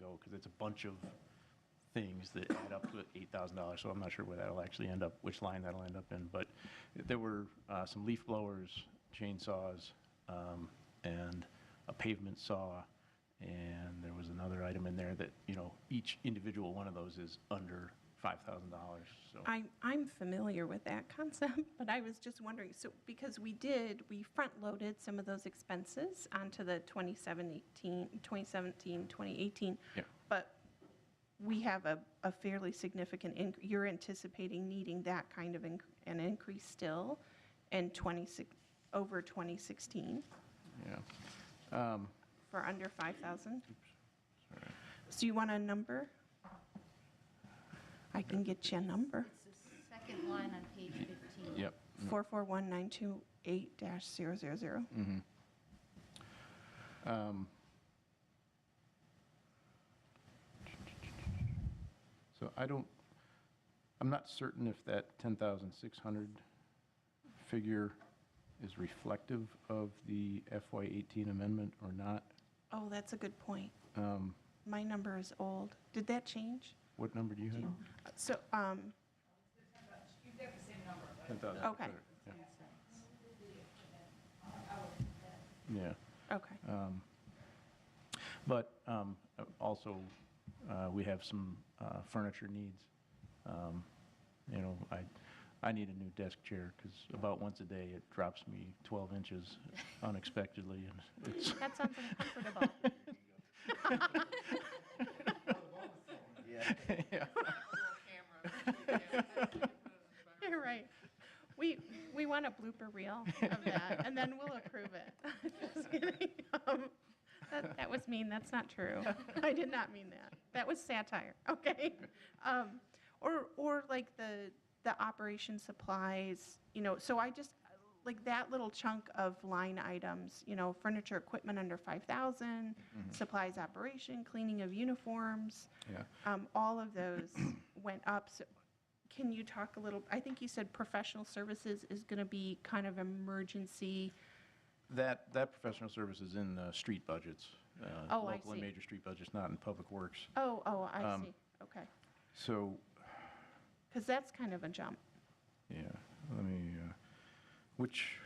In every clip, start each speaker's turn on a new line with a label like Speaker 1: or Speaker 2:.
Speaker 1: know, because it's a bunch of things that add up to $8,000, so I'm not sure where that'll actually end up, which line that'll end up in, but there were uh, some leaf blowers, chainsaws, um, and a pavement saw, and there was another item in there that, you know, each individual one of those is under $5,000, so.
Speaker 2: I'm, I'm familiar with that concept, but I was just wondering, so, because we did, we front-loaded some of those expenses onto the 2017, 2017, 2018.
Speaker 1: Yeah.
Speaker 2: But we have a, a fairly significant, inc- you're anticipating needing that kind of inc- an increase still in 26, over 2016
Speaker 1: Yeah.
Speaker 2: for under 5,000? So you want a number? I can get you a number.
Speaker 3: It's the second line on page 15.
Speaker 1: Yep.
Speaker 2: 441928-000.
Speaker 1: Um, So I don't, I'm not certain if that 10,600 figure is reflective of the FY18 amendment or not. Um,
Speaker 2: Oh, that's a good point. My number is old. Did that change?
Speaker 1: What number do you have?
Speaker 2: So, um,
Speaker 4: You've got the same number, but
Speaker 1: 10,000.
Speaker 2: Okay.
Speaker 1: Yeah. Yeah.
Speaker 2: okay.
Speaker 1: But um, also, uh, we have some uh, furniture needs. Um, You know, I, I need a new desk chair because about once a day it drops me 12 inches unexpectedly and it's,
Speaker 3: That sounds uncomfortable.
Speaker 2: You're right. We, we want a blooper reel of that, and then we'll approve it. Just kidding. Um, That that was mean, that's not true. I did not mean that. That was satire, okay? Um, Or, or like the, the operation supplies, you know, so I just, like that little chunk of line items, you know, furniture, equipment under 5,000, supplies operation, cleaning of uniforms.
Speaker 1: Yeah.
Speaker 2: Um, all of those went up. So can you talk a little, I think you said professional services is going to be kind of emergency.
Speaker 1: That, that professional service is in the street budgets. uh,
Speaker 2: Oh, I
Speaker 1: Local and
Speaker 2: see.
Speaker 1: major street budgets, not in public works.
Speaker 2: Oh, oh,
Speaker 1: Um,
Speaker 2: I see. Okay.
Speaker 1: So,
Speaker 2: Because that's kind of a jump.
Speaker 1: yeah, let me, uh, which,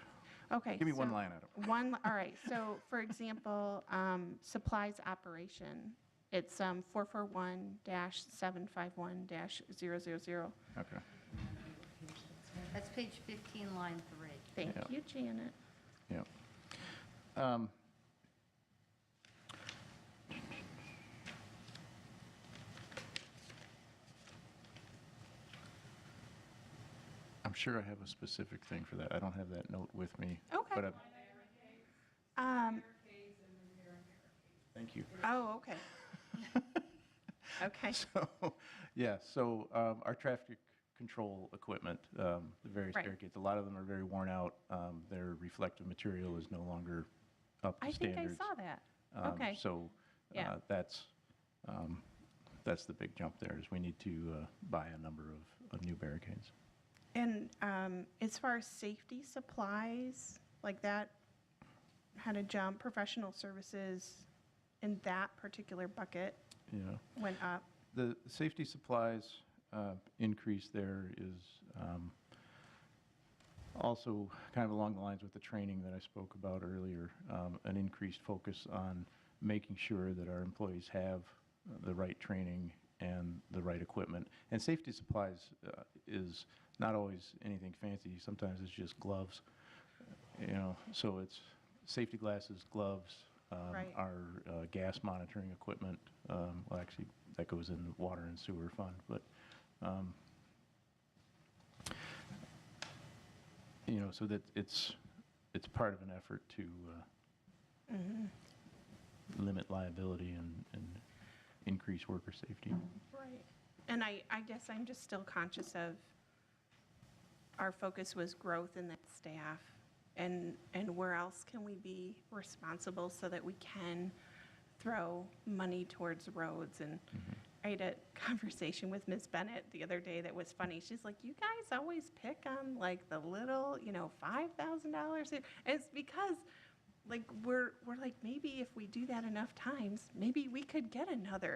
Speaker 2: Okay.
Speaker 1: Give me one
Speaker 2: so-
Speaker 1: line item.
Speaker 2: One, all right. So for example, um, supplies operation, it's um, 441-751-000.
Speaker 1: okay.
Speaker 3: That's page 15, line 3.
Speaker 1: Yeah.
Speaker 2: Thank you, Janet.
Speaker 1: Yeah. Um, I'm sure I have a specific thing for that. I don't have that note with me.
Speaker 2: Okay.
Speaker 1: But I,
Speaker 4: line item K's,
Speaker 2: Um,
Speaker 4: here K's, and then here and here K's.
Speaker 1: thank you.
Speaker 2: oh, okay. Okay.
Speaker 1: So, yeah, so um, our traffic control equipment, um, the various
Speaker 2: Right.
Speaker 1: barricades, a lot of them are very worn out. Um, Their reflective material is no longer up
Speaker 2: I
Speaker 1: to
Speaker 2: think I
Speaker 1: standards.
Speaker 2: saw that.
Speaker 1: Um,
Speaker 2: Okay.
Speaker 1: So
Speaker 2: Yeah.
Speaker 1: uh, that's, um, that's the big jump there, is we need to uh, buy a number of, of new barricades.
Speaker 2: And um, as far as safety supplies, like that had a jump, professional services in that particular bucket
Speaker 1: Yeah.
Speaker 2: went up.
Speaker 1: The safety supplies uh, increase there is um, also kind of along the lines with the training that I spoke about earlier, um, an increased focus on making sure that our employees have the right training and the right equipment. And safety supplies uh, is not always anything fancy. Sometimes it's just gloves, you know, so it's safety glasses, gloves, um,
Speaker 2: Right.
Speaker 1: our uh, gas monitoring equipment, um, well, actually, that goes in the water and sewer fund, but, um, you know, so that it's, it's part of an effort to uh, limit liability and, and increase worker safety.
Speaker 2: Right. And I, I guess I'm just still conscious of, our focus was growth in that staff. And, and where else can we be responsible so that we can throw money towards roads? And I had a conversation with Ms. Bennett the other day that was funny. She's like, you guys always pick on like the little, you know, $5,000. And It's because like, we're, we're like, maybe if we do that enough times, maybe we could get another